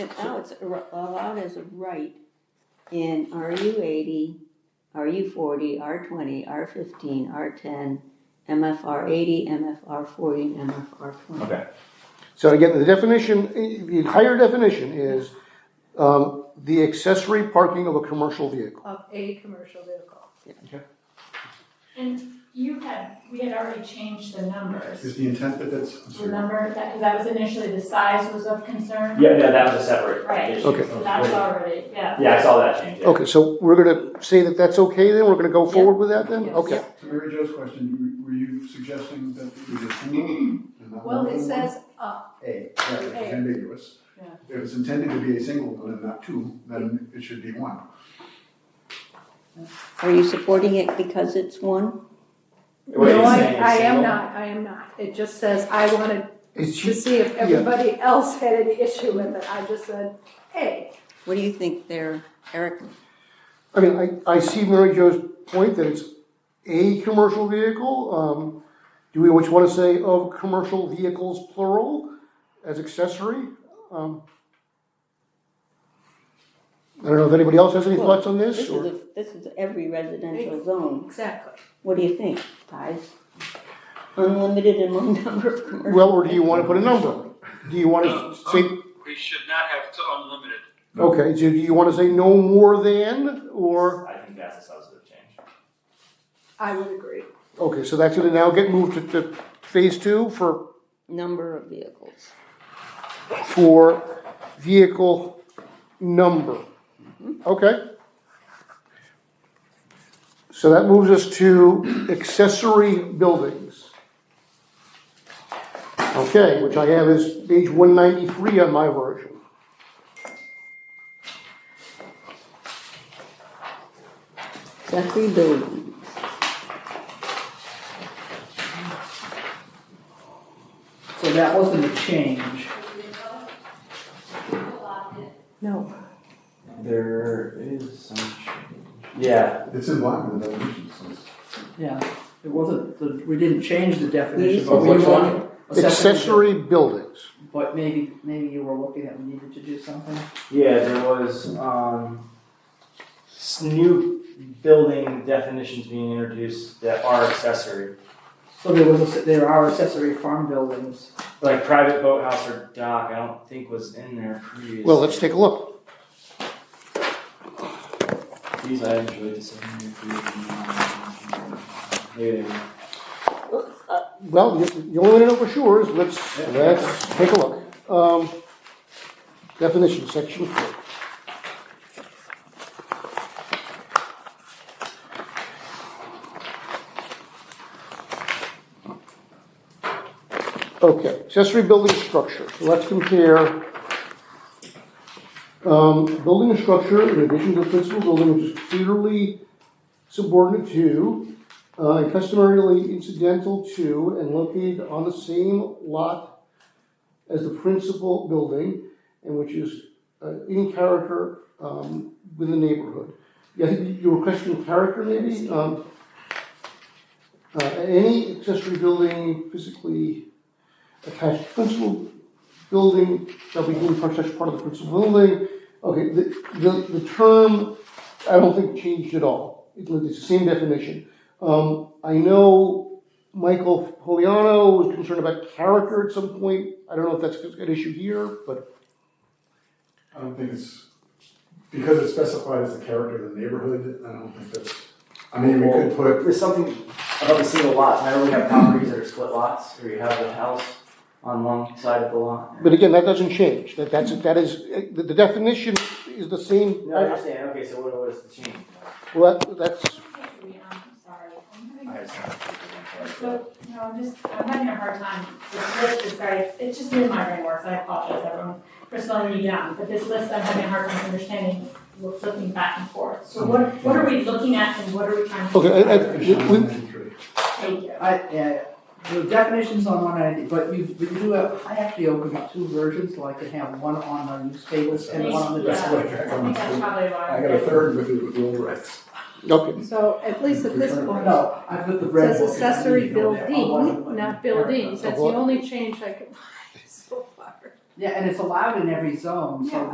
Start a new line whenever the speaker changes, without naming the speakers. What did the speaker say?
Now it's a ri- allowed as a right in RU eighty, RU forty, R twenty, R fifteen, R ten, MFR eighty, MFR forty, and MFR twenty.
Okay.
So again, the definition, the entire definition is um, the accessory parking of a commercial vehicle.
of a commercial vehicle.
And you had, we had already changed the numbers.
Is the intent that that's, I'm sorry.
Remember that, because that was initially the size was of concern?
Yeah, no, that was a separate
Right.
issue.
Okay.
So that's already, yeah.
Yeah, I saw that change. yeah.
Okay, so we're gonna say that that's okay then, we're gonna go forward with that then?
Yes.
Okay.
To Mary Jo's question, were were you suggesting that we just remove? and not
Well, it
remove
says, uh,
A, right, which
A.
is ambiguous.
Yeah.
If it's intended to be a single and not two, then it should be one.
Are you supporting it because it's one?
What are you
no, I,
saying,
I am
single?
not, I am not. It just says, I wanted
It's
to see if everybody else had any issue with it. I just said, hey,
What do you think there, Eric?
I mean, I, I see Mary Jo's point that it's a commercial vehicle. Um, do we, what you wanna say of commercial vehicles plural as accessory? Um, I don't know if anybody else has any thoughts on
This
this
is,
or?
a- this is every residential zone.
exactly.
What do you think, guys? Unlimited in one number of commercial.
Well, or do you wanna put a number? Do you wanna say,
We should not have to unlimited.
okay, so do you wanna say no more than, or,
I think that's a substantive change.
I would agree.
okay, so that's gonna now get moved to, to phase two for,
Number of vehicles.
for vehicle number. Okay. So that moves us to accessory buildings. Okay, which I have is page one ninety-three on my version.
Accessory buildings.
So that wasn't a change.
No.
There is some change. Yeah,
It's in line with the definition, so it's-
Yeah, it wasn't, the- we didn't change the
Yes.
definition, but we
Which one?
wanted.
Accessory buildings.
But maybe, maybe you were looking at, we needed to do something.
yeah, there was, um, s- new building definitions being introduced that are accessory.
So there was, a- there are accessory farm buildings.
Like private boathouse or dock, I don't think was in there previously.
Well, let's take a look.
These I enjoyed this. Maybe they were.
Well, the the only way to know for sure is let's, let's take a look. Um, Definition, section four. Okay, accessory building structure, So let's compare um, building structure in addition to principal building, which is clearly subordinate to uh, and customarily incidental to and located on the same lot as the principal building, and which is uh, in character um, with the neighborhood. Yeah, I think you were questioning character maybe? Um, uh, Any accessory building physically attached to principal building shall be deemed part- such part of the principal building. Okay, the, the, the term, I don't think changed at all. It's the same definition. Um, I know Michael Poliano was concerned about character at some point. I don't know if that's an issue here, but
I don't think it's, because it's specified as the character of the neighborhood, I don't think that's, I mean, we could put,
There's something about the single lots, remember we have properties that are split lots, where you have the house on one side of the lot?
but again, that doesn't change. That that's that is the, the definition is the same.
No, I understand, okay, so what, what is the change?
Well, that, that's
I'm sorry. I'm
I
having-
just don't think
So, no, I'm just, I'm having a hard time. This list is very, it's just in my brain works. I apologize everyone for slowing you down. But this list, I'm having a hard time understanding. We're flipping back and forth. So what, what are we looking at and what are we trying to?
Okay, I- I-
definition
we-
on 93.
Thank you.
I, yeah, the definitions on one ID, but you, but you do have, I actually opened up two versions, so I could have one on the newspapers and one on the.
That's
Yeah.
what I got
I
on
think that's
the-
probably why.
I got a third with the, with the old rights.
okay.
So at least at this point, it
No, I've got the red book.
says accessory
You know, that
building,
one.
not buildings. That's the
What?
only change I could find so far.
Yeah, and it's allowed in every zone, so
Yeah.